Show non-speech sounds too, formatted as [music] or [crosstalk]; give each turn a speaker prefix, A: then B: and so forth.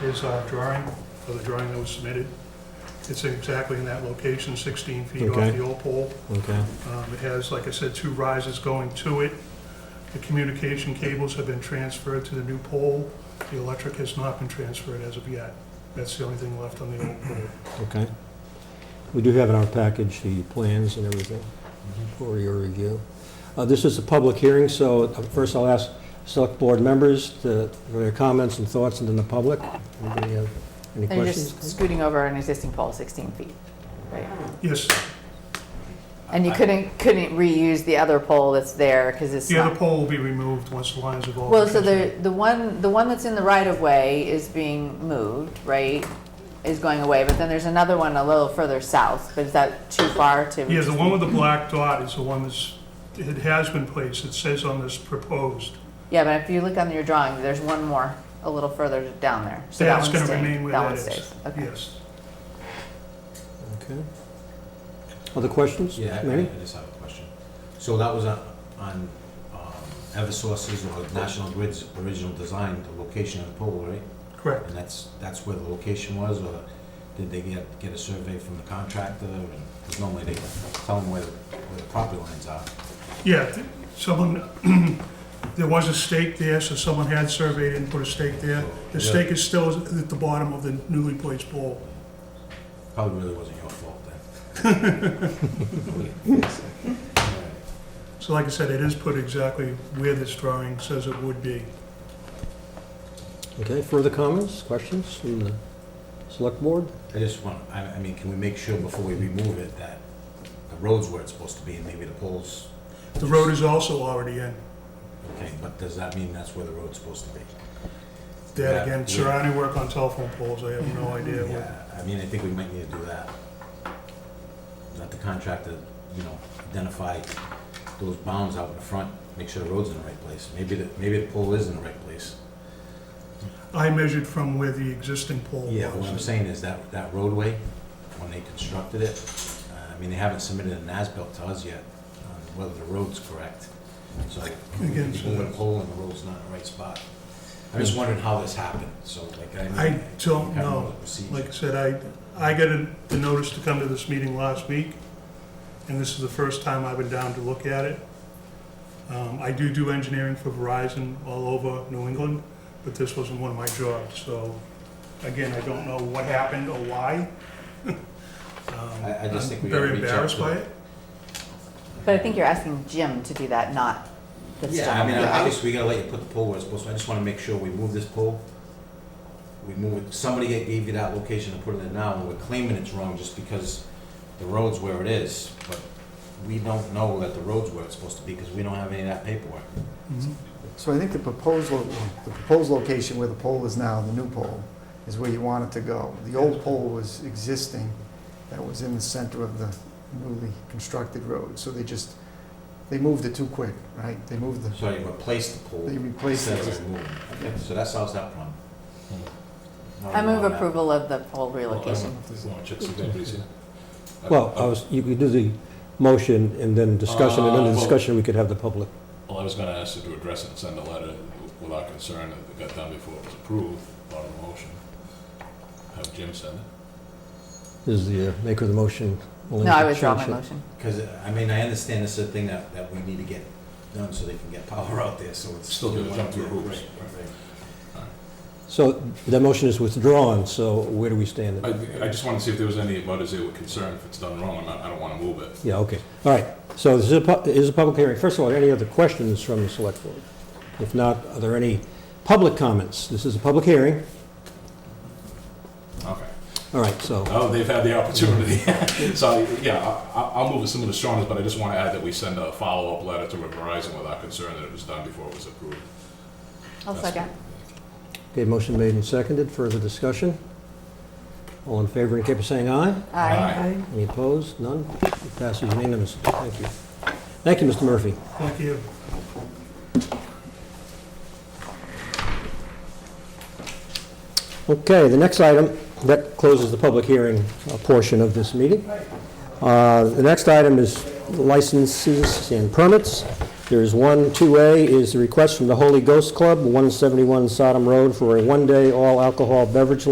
A: his uh, drawing, or the drawing that was submitted. It's exactly in that location, 16 feet off
B: Okay.
A: the old pole.
B: Okay,
A: Um, It has, like I said, two rises going to it. The communication cables have been transferred to the new pole. The electric has not been transferred as of yet. That's the only thing left on the old pole.
B: okay. We do have in our package the plans and everything for your review. Uh, This is a public hearing, so uh, first I'll ask select board members to- for their comments and thoughts, and then the public. Anybody have any
C: And you're
B: questions?
C: just scooting over an existing pole 16 feet, right?
A: Yes,
C: And you couldn't, couldn't reuse the other pole that's there because it's
A: the other
C: not.
A: pole will be removed once the lines have all...
C: Well, so the, the one, the one that's in the right of way is being moved, right? Is going away, but then there's another one a little further south, but is that too far to?
A: Yeah, the one with the black dot is the one that's, it has been placed. It says on this proposed.
C: Yeah, but if you look on your drawing, there's one more a little further down there. So that
A: That's
C: one's
A: going to
C: staying.
A: remain where
C: That
A: that
C: one
A: is.
C: stays, okay.
A: Yes.
B: Okay. Other questions?
D: Yeah, I- I
B: Mary?
D: I just have a question. So that was on- on um, Eversource's or National Grid's original design, the location of the pole, right?
A: Correct.
D: And that's, that's where the location was, or did they get, get a survey from the contractor? Because normally they tell them where, the- where the property lines are.
A: Yeah, th- someone, [clears throat] there was a stake there, so someone had surveyed and put a stake there. The
D: Yeah.
A: stake is still at the bottom of the newly placed pole.
D: Probably really wasn't your fault then.
A: So like I said, it is put exactly where this drawing says it would be.
B: Okay, further comments, questions from the select board?
D: I just want, I, I mean, can we make sure before we remove it that the road's where it's supposed to be and maybe the pole's,
A: The road is also already in.
D: okay, but does that mean that's where the road's supposed to be?
A: That
D: Yeah,
A: again,
D: yeah. Mm-hmm.
A: surrounding work on telephone poles, I have no idea what.
D: Yeah, I mean, I think we might need to do that. Let the contractor, you know, identify those bounds out in the front, make sure the road's in the right place. Maybe the, maybe the pole is in the right place.
A: I measured from where the existing pole was.
D: Yeah, what I'm saying is that, that roadway, when they constructed it, uh, I mean, they haven't submitted an as-built to us yet on whether the road's correct. So like, we
A: Again, so
D: moving a pole and the road's not in the right spot. I'm just wondering how this happened, so like, I. mean,
A: I don't
D: kind of
A: know.
D: the procedure.
A: Like I said, I, I got a- the notice to come to this meeting last week, and this is the first time I've been down to look at it. Um, I do do engineering for Verizon all over New England, but this wasn't one of my jobs, so, again, I don't know what happened or why. Um,
D: I- I just
A: I'm
D: think we
A: Very
D: gotta reach out
A: embarrassed
D: to-
A: by it.
C: But I think you're asking Jim to do that, not the
D: Yeah, I mean,
C: stone.
D: obviously, we gotta let you put the pole where it's supposed to, I just wanna make sure we move this pole. We move it, somebody that gave you that location and put it in now, and we're claiming it's wrong just because the road's where it is, but we don't know that the road's where it's supposed to be, because we don't have any of that paperwork.
E: So I think the proposed, lo- the proposed location where the pole is now, the new pole, is where you want it to go. The old pole was existing, that was in the center of the newly constructed road, so they just, they moved it too quick, right? They moved the,
D: So you replace the pole.
E: They replace
D: instead of
E: it.
D: remove Okay, So that solves that problem. Not
C: Hmm. I move
D: wrong on that.
C: approval of the pole relocation.
B: Well, I was, you could do the motion and then discussion, and then
F: Uh,
B: the
F: well-
B: discussion, we could have the public.
F: Well, I was gonna ask you to address it and send a letter without concern that it got done before it was approved, part of the motion. Have Jim send it.
B: Is the uh, maker of the motion willing to
C: No, I withdraw my
B: change it?
C: motion.
D: Cause, I mean, I understand this is a thing that, that we need to get done so they can get power out there, so it's.
F: Still gonna jump through hoops.
D: Right, right, right.
B: So that motion is withdrawn, so where do we stand?
F: I, I just wanna see if there was any butters that were concerned if it's done wrong, I'm not, I don't wanna move it.
B: Yeah, okay. All right. So this is a, pu- is a public hearing. First of all, any other questions from the select board? If not, are there any public comments? This is a public hearing.
F: Okay.
B: All right, so,
F: Oh, they've had the opportunity. [laughs] So, yeah, I, I- I'll move with some of the strongest, but I just wanna add that we send a follow-up letter to Verizon without concern that it was done before it was approved.
C: I'll
F: That's-
C: second.
B: okay, motion made and seconded. Further discussion? All in favor, indicate by saying aye.
F: Aye.
B: Any opposed? None? It passes unanimously. Thank you. Thank you, Mr. Murphy.
A: Thank you.
B: Okay, the next item, that closes the public hearing uh, portion of this meeting. Uh, The next item is licenses and permits. There's one, 2A is the request from the Holy Ghost Club, 171 Sodom Road, for a one-day all-alcohol beverage